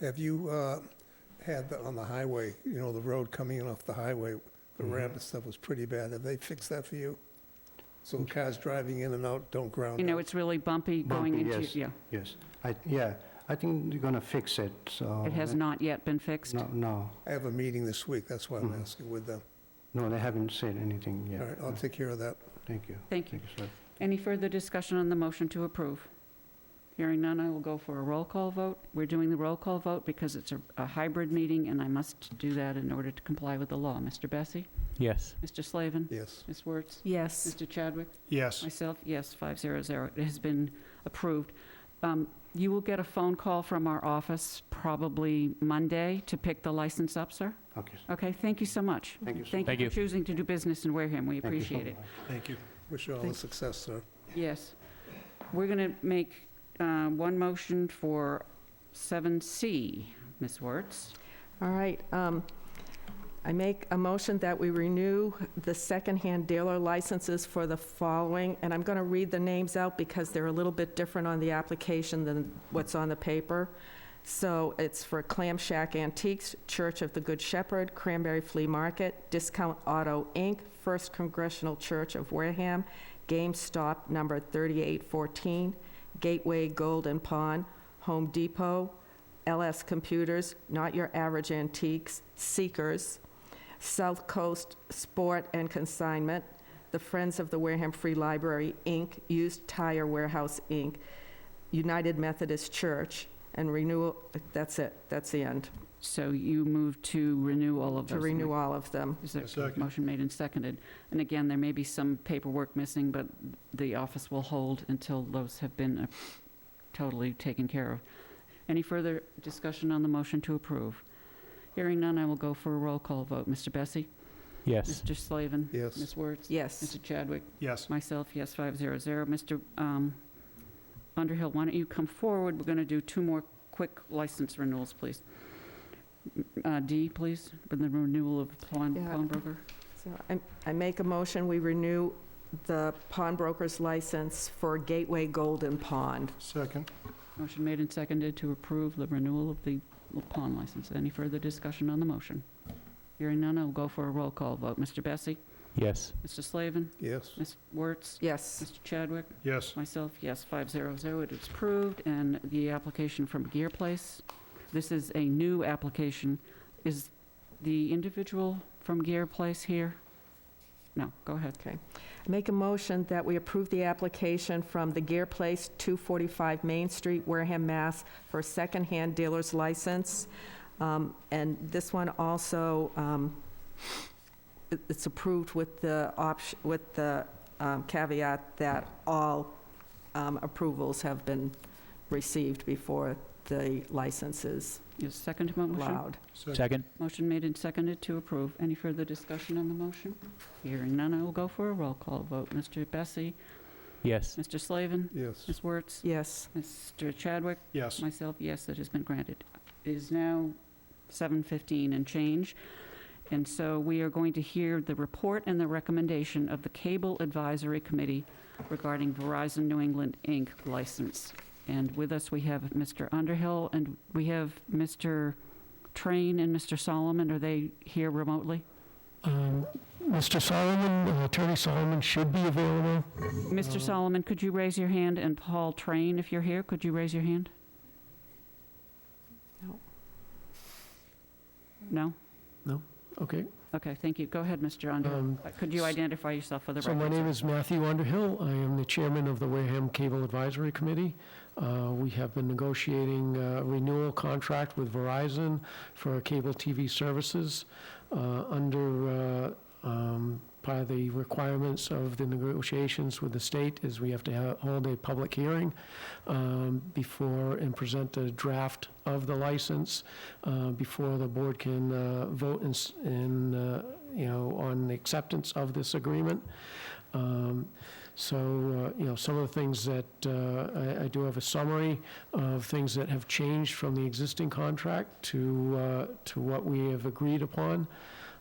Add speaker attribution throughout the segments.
Speaker 1: Have you uh, had the- on the highway, you know, the road coming in off the highway,
Speaker 2: Mm-hmm.
Speaker 1: the ramp and stuff was pretty bad. Have they fixed that for you? So
Speaker 2: Mm.
Speaker 1: cars driving in and out don't ground.
Speaker 3: You know,
Speaker 1: out?
Speaker 3: it's really bumpy going
Speaker 4: Bumpy,
Speaker 3: into,
Speaker 4: yes.
Speaker 3: yeah.
Speaker 4: Yes, I, yeah, I think they're gonna fix it, so.
Speaker 3: It has not yet been fixed.
Speaker 4: No, no,
Speaker 1: I have a meeting this week, that's why I'm
Speaker 2: Mm-hmm.
Speaker 4: Mhm.
Speaker 1: asking with them.
Speaker 4: no, they haven't said anything
Speaker 1: All
Speaker 4: yet.
Speaker 1: right, I'll take care of that.
Speaker 4: Thank you.
Speaker 3: Thank you.
Speaker 4: sir.
Speaker 3: Any further discussion on the motion to approve? Hearing none, I will go for a roll call vote. We're doing the roll call vote because it's a- a hybrid meeting, and I must do that in order to comply with the law. Mr. Bessie?
Speaker 5: Yes.
Speaker 3: Mr. Slavin?
Speaker 1: Yes.
Speaker 3: Ms. Wertz?
Speaker 6: Yes.
Speaker 3: Mr. Chadwick?
Speaker 2: Yes.
Speaker 3: Myself, yes, 500. It has been approved. Um, You will get a phone call from our office probably Monday to pick the license up, sir?
Speaker 4: Okay, sir.
Speaker 3: Okay, thank you so much.
Speaker 4: thank you. sir.
Speaker 3: Thank
Speaker 5: Thank
Speaker 3: you
Speaker 5: you.
Speaker 3: for choosing to do business in Wareham. We
Speaker 4: Thank you so
Speaker 3: appreciate it.
Speaker 4: much.
Speaker 2: Thank you.
Speaker 1: Wish you all the
Speaker 6: Thank-
Speaker 1: success, sir.
Speaker 3: Yes. We're going to make uh, one motion for 7C, Ms. Wertz.
Speaker 6: All right. um, I make a motion that we renew the secondhand dealer licenses for the following, and I'm going to read the names out because they're a little bit different on the application than what's on the paper. So it's for Clam Shack Antiques, Church of the Good Shepherd, Cranberry Flea Market, Discount Auto, Inc., First Congressional Church of Wareham, GameStop number 3814, Gateway Gold and Pawn, Home Depot, LS Computers, Not Your Average Antiques, Seekers, South Coast Sport and Consignment, the Friends of the Wareham Free Library, Inc., Used Tire Warehouse, Inc., United Methodist Church, and renewal, that's it, that's the end,
Speaker 3: So you move to renew all of
Speaker 6: to
Speaker 3: those.
Speaker 6: renew all of them.
Speaker 3: Is there
Speaker 2: Second.
Speaker 3: motion made and seconded? And again, there may be some paperwork missing, but the office will hold until those have been uh, totally taken care of. Any further discussion on the motion to approve? Hearing none, I will go for a roll call vote. Mr. Bessie?
Speaker 5: Yes.
Speaker 3: Mr. Slavin?
Speaker 1: Yes.
Speaker 3: Ms. Wertz?
Speaker 6: Yes.
Speaker 3: Mr. Chadwick?
Speaker 2: Yes.
Speaker 3: Myself, yes, 500. Mr. um, Underhill, why don't you come forward? We're going to do two more quick license renewals, please. Uh, D, please, for the renewal of pawn-
Speaker 6: Yeah.
Speaker 3: pawnbroker.
Speaker 6: So I- I make a motion, we renew the pawnbroker's license for Gateway Golden Pond.
Speaker 2: Second.
Speaker 3: Motion made and seconded to approve the renewal of the pawn license. Any further discussion on the motion? Hearing none, I'll go for a roll call vote. Mr. Bessie?
Speaker 5: Yes.
Speaker 3: Mr. Slavin?
Speaker 1: Yes.
Speaker 3: Ms. Wertz?
Speaker 6: Yes.
Speaker 3: Mr. Chadwick?
Speaker 2: Yes.
Speaker 3: Myself, yes, 500, it is approved, and the application from Gear Place, this is a new application. Is the individual from Gear Place here? No, go ahead.
Speaker 6: Make a motion that we approve the application from the Gear Place, 245 Main Street, Wareham, Mass. for a secondhand dealer's license. Um, And this one also, um, it- it's approved with the option, with the um, caveat that all um, approvals have been received before the license is
Speaker 3: Is second to my motion?
Speaker 6: allowed.
Speaker 5: Second?
Speaker 3: Motion made and seconded to approve. Any further discussion on the motion? Hearing none, I will go for a roll call vote. Mr. Bessie?
Speaker 5: Yes.
Speaker 3: Mr. Slavin?
Speaker 1: Yes.
Speaker 3: Ms. Wertz?
Speaker 6: Yes.
Speaker 3: Mr. Chadwick?
Speaker 2: Yes.
Speaker 3: Myself, yes, it has been granted. It is now 7:15 and change, and so we are going to hear the report and the recommendation of the Cable Advisory Committee regarding Verizon New England, Inc. license. And with us, we have Mr. Underhill, and we have Mr. Train and Mr. Solomon. Are they here remotely?
Speaker 2: Mr. Um, Solomon, uh, Attorney Solomon should be available.
Speaker 3: Mr. Solomon, could you raise your hand? And Paul Train, if you're here, could you raise your hand?
Speaker 6: No.
Speaker 3: No?
Speaker 2: No? Okay.
Speaker 3: Okay, thank you. Go ahead, Mr. Underhill.
Speaker 2: Um,
Speaker 3: Uh, Could you
Speaker 2: s-
Speaker 3: identify yourself for the record?
Speaker 2: So
Speaker 3: sir?
Speaker 2: my name is Matthew Underhill. I am the chairman of the Wareham Cable Advisory Committee. Uh, We have been negotiating a renewal contract with Verizon for cable TV services uh, under, uh, um, part of the requirements of the negotiations with the state is we have to ha- hold a public hearing um, before, and present a draft of the license uh, before the board can uh, vote in s- in, uh, you know, on the acceptance of this agreement. Um, So, uh, you know, some of the things that, uh, I I do have a summary of things that have changed from the existing contract to, uh, to what we have agreed upon.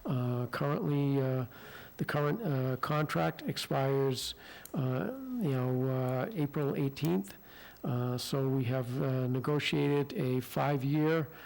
Speaker 2: Uh, Currently, uh, the current uh, contract expires, uh, you know, uh, April 18th. Uh, So we have uh, negotiated a five-year